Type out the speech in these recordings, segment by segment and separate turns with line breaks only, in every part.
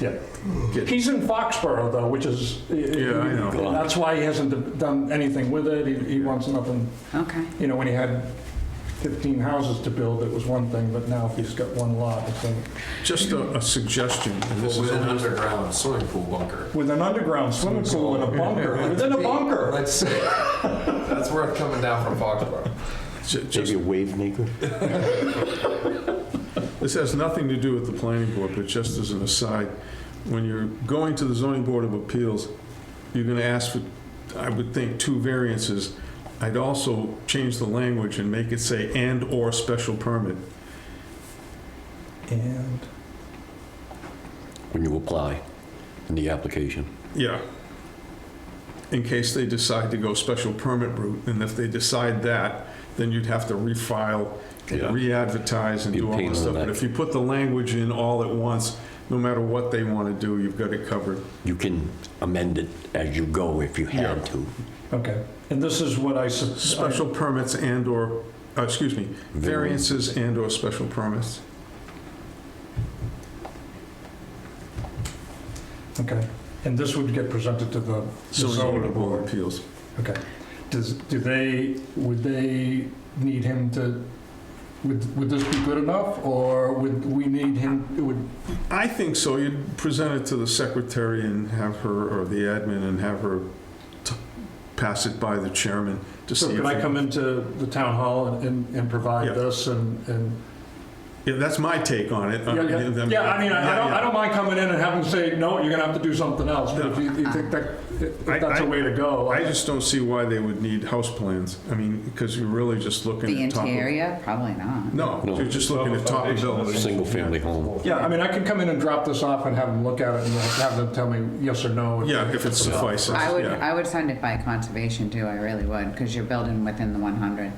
Yeah. He's in Foxborough though, which is.
Yeah, I know.
That's why he hasn't done anything with it. He, he wants nothing,
Okay.
you know, when he had 15 houses to build, it was one thing, but now if he's got one lot, it's a.
Just a, a suggestion, and this
Well,
is
With an
only-
underground swimming pool bunker.
With an underground swimming pool and a bunker, within a bunker.
Let's, that's worth coming down from Foxborough.
ju- just,
Maybe a wave maker?
this has nothing to do with the planning board, but just as an aside, when you're going to the zoning board of appeals, you're gonna ask for, I would think, two variances. I'd also change the language and make it say and/or special permit.
And
When you apply in the application.
Yeah. In case they decide to go special permit route, and if they decide that, then you'd have to refile,
Yeah.
re-advertise and
Be a
do all
pain in
this
the
stuff. But
neck.
if you put the language in all at once, no matter what they want to do, you've got it covered.
You can amend it as you go if you had to.
Okay, and this is what I, sus-
Special permits and/or, uh, excuse me, variances and/or special permits.
okay, and this would get presented to the the
Zoning
zoning
board of
board?
appeals.
Okay, does, do they, would they need him to, would, would this be good enough, or would we need him, it would,
I think so. You'd present it to the secretary and have her, or the admin, and have her t- pass it by the chairman to
so
see if...
could I
it-
come into the town hall and, and
Yeah.
provide this and, and?
Yeah, that's my take on it.
Yeah, yeah, yeah, I mean, I I don't, I don't mind coming in and having to say, no, you're gonna have to do something else, but if you you think that, if
I-
that's a
I-
way to go.
I just don't see why they would need house plans. I mean, because you're really just looking
The
at top. of-
interior, probably not.
No,
No.
you're just looking at top of buildings.
Single-family home.
Yeah, I mean, I can come in and drop this off and have them look at it and have them tell me yes or no.
Yeah, if it suffices,
I would,
yeah.
I would send it by conservation too, I really would, because you're building within the 100.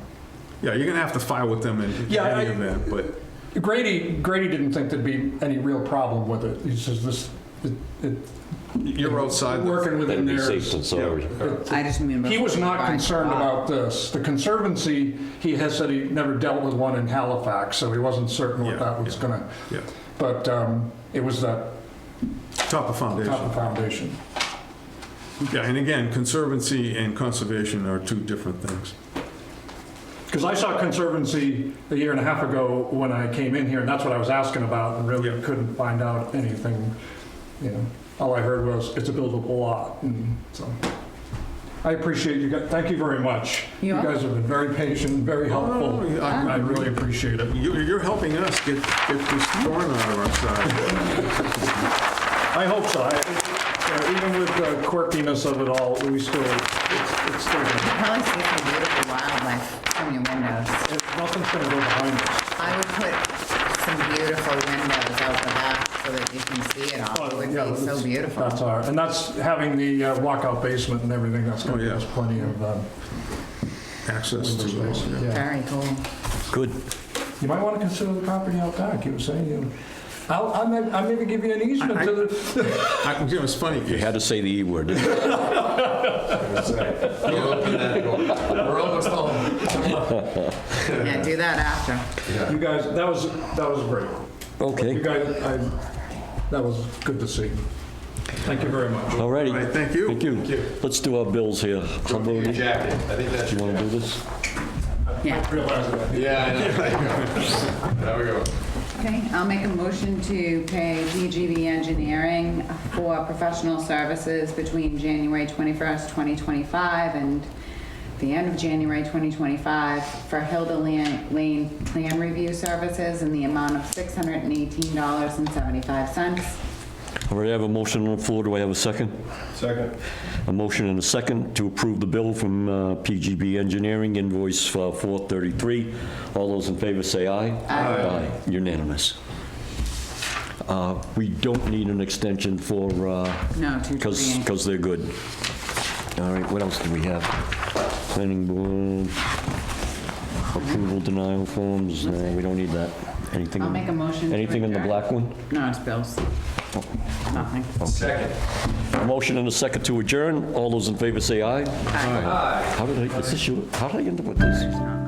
Yeah, you're gonna have to file with them in
Yeah,
any
I-
event, but
Grady, Grady didn't think there'd be any real problem with it. He says this, it, it,
you're outside. the-
working within
That'd be
there.
safe and sorry.
I just mean.
He was not
by
concerned
lot.
about this. The Conservancy, he has said he never dealt with one in Halifax, so he wasn't certain what
Yeah,
that was
yeah.
gonna,
Yeah,
but, um, it was that
top of foundation.
top of foundation.
Yeah, and again, conservancy and conservation are two different things.
Because I saw Conservancy a year and a half ago when I came in here, and that's what I was asking about, and really
Yeah.
couldn't find out anything, you know. All I heard was, it's a buildable lot, and so. I appreciate you guys, thank you very much. You
You're
guys have been very patient, very helpful.
no, no, Oh, I-
I really appreciate it.
You're, you're helping us get, get this thorn out of our side.
I hope so. I- uh, Even with the quirkiness of it all, we still, it's it's still,
You Probably see some beautiful wildlife from your windows.
it's- nothing's gonna go behind us.
I would put some beautiful windows out the back so that you can see it all. It would
Oh, Yeah,
be so
that's-
beautiful.
That's our, and that's having the uh, walkout basement and everything, that's gonna
Oh,
give
yeah.
us plenty of, um,
Access to those, yeah.
Yeah.
Very cool.
Good.
You might want to consider the property out back, you were saying, you, I'll, I'll may- I'll maybe give you an easement to the,
I, you know, it's funny.
You had to say the E word. didn't you?
You open that door. We're almost home.
Yeah, do that after.
you guys, that was, that was great. You
Okay,
guys, I, that was good to see. Thank you very much.
all righty.
All right, thank you.
Thank you. Let's do our bills here. Humble,
Your
do
jacket. I think that's
you
your
want to do
jacket.
this?
Yeah.
Realize that.
Yeah, I know. There we go.
Okay, I'll make a motion to pay PGB Engineering for professional services between January 21st, 2025 and the end of January 2025 for Hilda Lan- Lane Plan Review Services in the amount of $618.75.
All right, I have a motion on the floor. Do I have a second?
Second.
A motion and a second to approve the bill from uh, PGB Engineering, invoice for 433. All those in favor say aye. Aye. Unanimous. Uh, We don't need an extension for,
No, two
because,
twenty-eight.
because they're good. All right, what else do we have? Planning board, approval denial forms, no, we don't need that. Anything?
I'll make a motion to
Anything in the
adjourn.
black one?
No, it's bills. Nothing.
Second.
A motion and a second to adjourn. All those in favor say aye. Aye. How did I, is this your, how did I end up with this?
There's not.